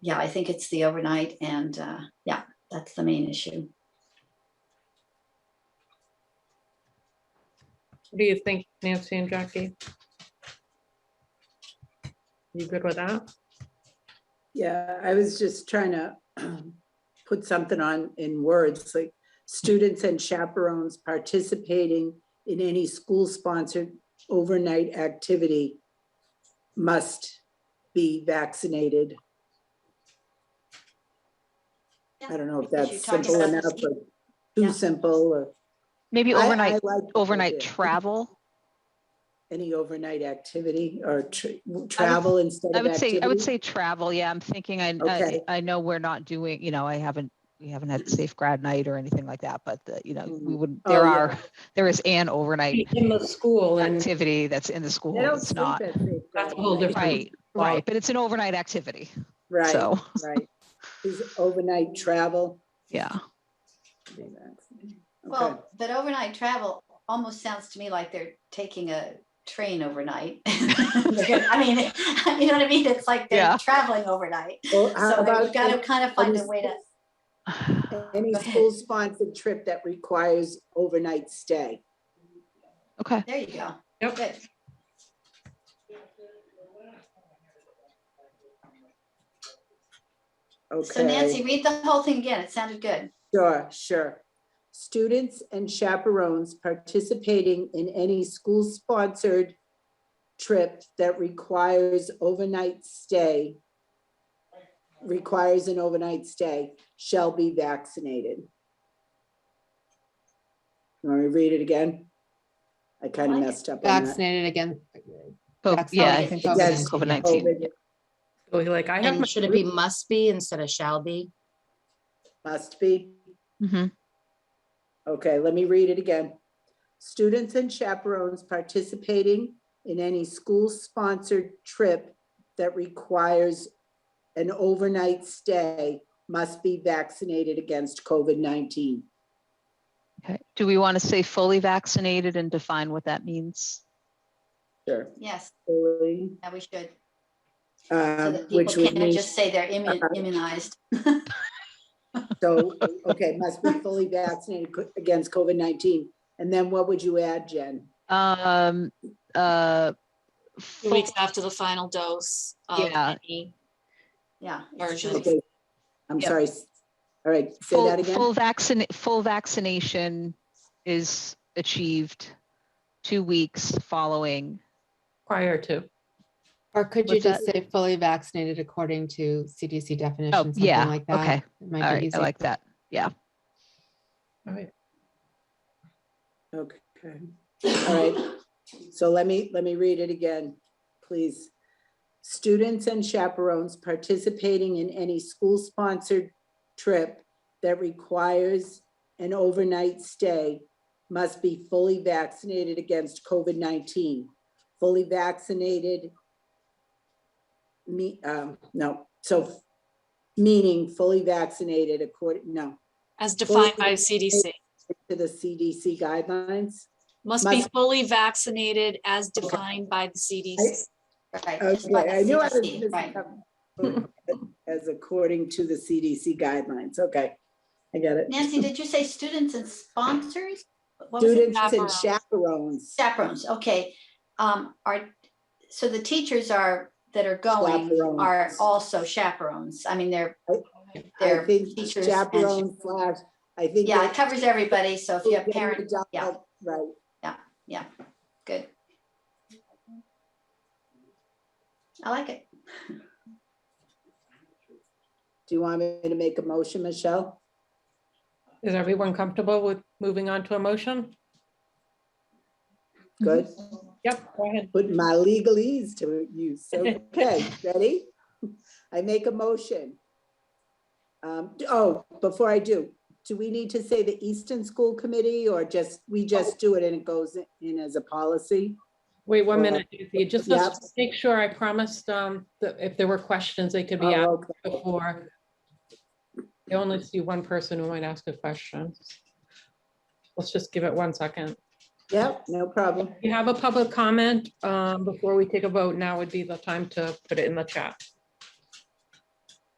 yeah, I think it's the overnight and, uh, yeah, that's the main issue. What do you think, Nancy and Jackie? You good with that? Yeah, I was just trying to um, put something on in words, like students and chaperones participating in any school-sponsored overnight activity must be vaccinated. I don't know if Because you that's talked simple about enough this- or Yeah. too simple or. Maybe I- I overnight, like the overnight idea. travel. Any overnight activity or tr- travel instead of I would say, I would activity? say travel. Yeah, I'm thinking, I, I, Okay. I know we're not doing, you know, I haven't, we haven't had safe grad night or anything like that, but the, you know, we Mm. would, Oh, there yeah. are, there is an overnight In the school and. activity that's in the school. They don't It's sleep not, at night, That's a right? whole different- right, right, but it's an overnight activity. Right, So, right. Is overnight travel? yeah. be vaccinated. Okay. Well, but overnight travel almost sounds to me like they're taking a train overnight. I mean, you know what I mean? It's like Yeah. they're traveling overnight. Well, how So about we've got to kind of find a Understood. way to, Any Go ahead. school-sponsored trip that requires overnight stay. Okay. there you go. Yep. Good. So Nancy, Okay, read the whole thing again. It sounded good. sure, sure. Students and chaperones participating in any school-sponsored trip that requires overnight stay, requires an overnight stay, shall be vaccinated. You Want me to read it again? I kind of Like it. messed up on that. vaccinated again. So, That's yeah, all I it think is. Yes. COVID nineteen. COVID So you're like, I have. my And should it be must be instead of shall be? Must be. Mm-hmm. Okay, let me read it again. Students and chaperones participating in any school-sponsored trip that requires an overnight stay must be vaccinated against COVID-19. Okay. Do we want to say fully vaccinated and define what that means? Sure. Yes, Fully, yeah, we should. So um, that Which people would can't mean, just say they're immu- Uh-huh. immunized. so, okay, must be fully vaccinated co- against COVID-19. And then what would you add, Jen? Um, uh. Two full- weeks after the final dose. of Yeah. any- Yeah. it's Version. true. Okay, I'm Yep. sorry. s- All right, say Full, that again. full vaccine, full vaccination is achieved two weeks following. Prior to. Or could you you What's just just say fully vaccinated according to CDC definition, Oh, something yeah, like that? okay. It All might be right, I easier. like that. All right. Okay. All right. So let me, let me read it again, please. Students and chaperones participating in any school-sponsored trip that requires an overnight stay must be fully vaccinated against COVID-19. Fully vaccinated me, um, no, so meaning fully vaccinated according, no, As defined Fully by CDC, to the CDC guidelines. must be Must- fully vaccinated as defined by the CDC. Right. just like Okay, I knew I was CDC, Right. missing something. As according to the CDC guidelines, okay, I got it. Nancy, did you say students and sponsors? What was it? Students and Chaperones. chaperones. Chaperones, okay. Um, are, so the teachers are, that are going are Chaperones. also chaperones. I mean, they're, I they're think teachers. and- chaperone slash, I think. Yeah, it that- covers everybody. So if you have parent, yeah. Right, good. I like it. do you want me to make a motion, Michelle? Is everyone comfortable with moving on to a motion? Good, Yep, go ahead. put my legalese to use, So, okay, ready? I make a motion. Um, d- oh, before I do, do we need to say the Easton School Committee or just, we just do it and it goes in as a policy? Wait one Well, minute, Nancy. Just yeah. let's make sure I promised um, that if there were questions, they could be asked Oh, okay. before. I only see one person who might ask a question. Let's just give it one second. Yep, no problem. If you have a public comment um, before we take a vote, now would be the time to put it in the chat.